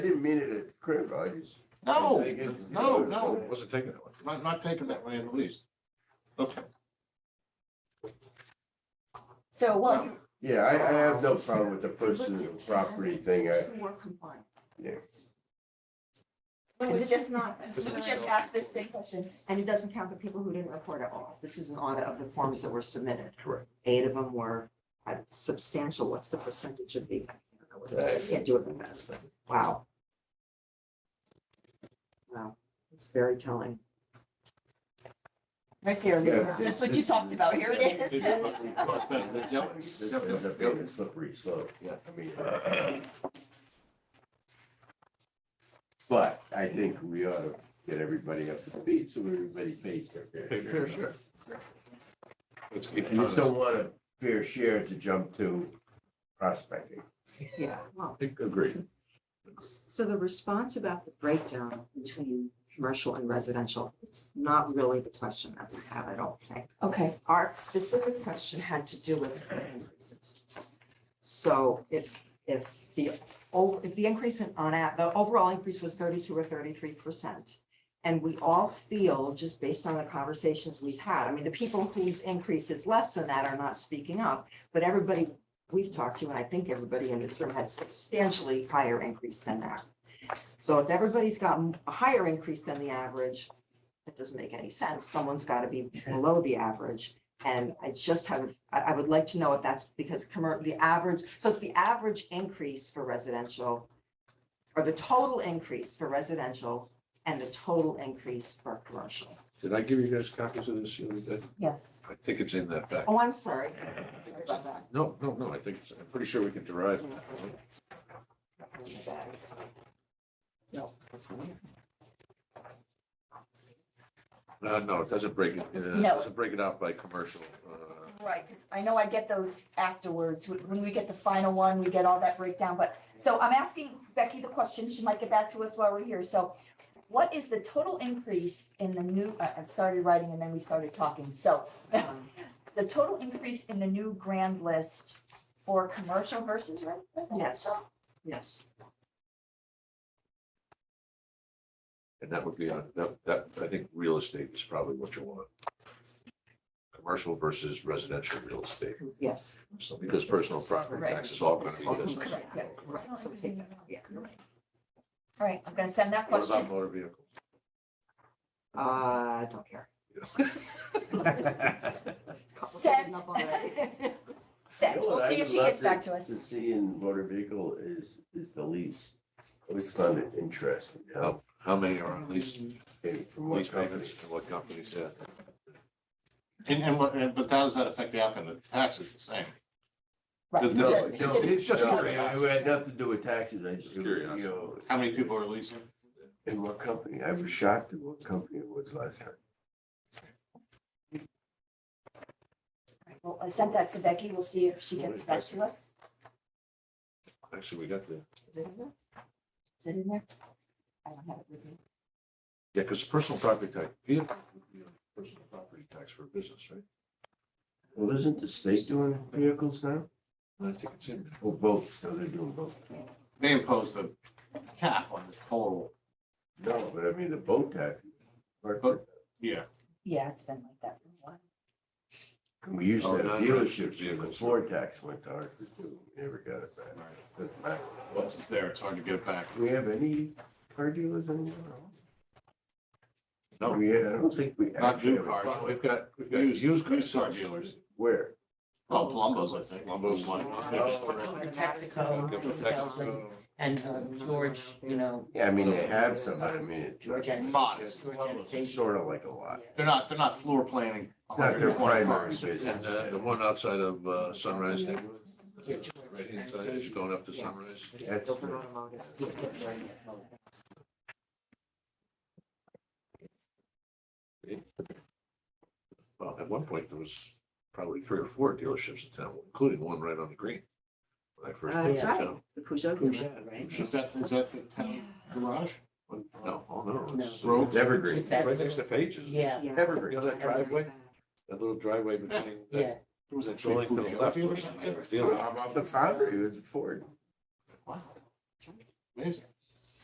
didn't mean it at the crib, I just. No, I think it's- no, no, wasn't taken that way, not, not taken that way in the least. Okay, So what? No. Yeah, I, I have no problem with the personal property thing. I, More compliant. It This was is just, not, we this is just just, asked this same question. and it doesn't count the people who didn't report at all. This is an audit of the forms that were submitted. Correct. Eight of them were uh, substantial. What's the percentage of the? I don't know what it is. I Can't do it in this, but wow. Wow, it's very telling. Right there, Yeah. that's what you talked about, here it is. This ends up being a slippery slope, yeah, I mean. But I think we ought to get everybody up to speed so everybody pays their Okay, fair fair share. share. Let's keep. I just don't want a fair share to jump to prospecting. Yeah, wow. Agreed. So the response about the breakdown between commercial and residential, it's not really the question that we have, I don't think. Okay, Our specific question had to do with the increases. So if, if the, o- if the increase in, on, a- the overall increase was thirty-two or thirty-three percent. And we all feel, just based on the conversations we've had, I mean, the people whose increase is less than that are not speaking up. But everybody we've talked to, and I think everybody in this room had substantially higher increase than that. So if everybody's got a higher increase than the average, it doesn't make any sense. Someone's got to be below the average. And I just have, I, I would like to know if that's because commer, the average, so it's the average increase for residential or the total increase for residential and the total increase for commercial. Did I give you guys copies of this? the other day? yes. I think it's in that back. Oh, I'm sorry. Sorry about that. No, no, no, I think, it's- I'm pretty sure we can derive. Oh, No. that's not it. No, Uh, no, it doesn't break it, it No. doesn't break it out by commercial. uh, Right, because I know I get those afterwards, Wh- when we get the final one, we get all that breakdown, but, so I'm asking Becky the question, she might get back to us while we're here, so. What is the total increase in the new, I, I started writing and then we started talking, so. Um, The total increase in the new grand list for commercial versus re- residential? Yes, And that would be on, that, that, I think real estate is probably what you want. Commercial versus residential real estate, yes. so because personal property tax is all gonna be business. Correct, yeah, Right, so take that, yeah. All right, I'm gonna send that What question. about motor vehicles? Uh, don't care. It's complicated Sent. enough already. Sent, You know we'll what I see if would she love gets back to To us. see in motor vehicle is, is the lease. I always found it interesting, you know, How, how many are on lease, came from one lease company. payments, and what companies, uh, yeah? And, and what, and- but how does that affect the outcome? The tax is the same. Right. No, The- no, the- it's just no, curiosity. It had nothing to do with taxes, I just, Just you curiosity. know, How many people are leasing? in what company, I was shocked at what company it was last time. Well, I sent that to Becky, we'll see if she gets back to us. Actually, we got the, Is it in there? Is it in there? I don't have it with me. yeah, because personal property tax, vehicle, would be on personal property tax for business, right? Well, isn't the state doing vehicles now? And I think it's in, there. Well, both, so they're doing both. They impose the cap on the total. No, but I mean, the boat tax. or- Boat. Yeah. Yeah, it's been like that for a while. We used to Oh, have non-registered dealerships, when the vehicles. Ford tax went to Hartford too, We never got it back. Doesn't matter. Once it's there, it's hard to get it back. Do we have any car dealers anymore? No. We, I don't think we. Not actually new have a- cars. Well, we've got, we've got Used- used car used car dealers. dealers. Where? Well, Palumbo's, I think. Palumbo's one. Oh. Uh, Texaco, go for Texaco, Texaco. and um, George, you know, Yeah, I mean, they have some, but I mean. it's- George Genesee. Modest. George Genesee. Sort of like a lot. They're not, they're not floor planning. a Not their hundred and twenty primary cars. And business. uh, the one outside of uh, Sunrise neighborhood, Yeah, right inside, as you're going up to Sunrise. That's Open good. automotive. Well, at one point, there was probably three or four dealerships in town, including one right on the green. When I first Uh, moved That's to right, town. the Peugeot dealer. Peugeot, right? Is that, is that the town garage? No, oh, no, it's. No. it's Evergreen, Right next to Pages. Yeah, Yeah. You know evergreen. that driveway, that little driveway between, that yeah. There was a building to the left was a dealer. How about the foundry, it was Ford. Wow. Amazing.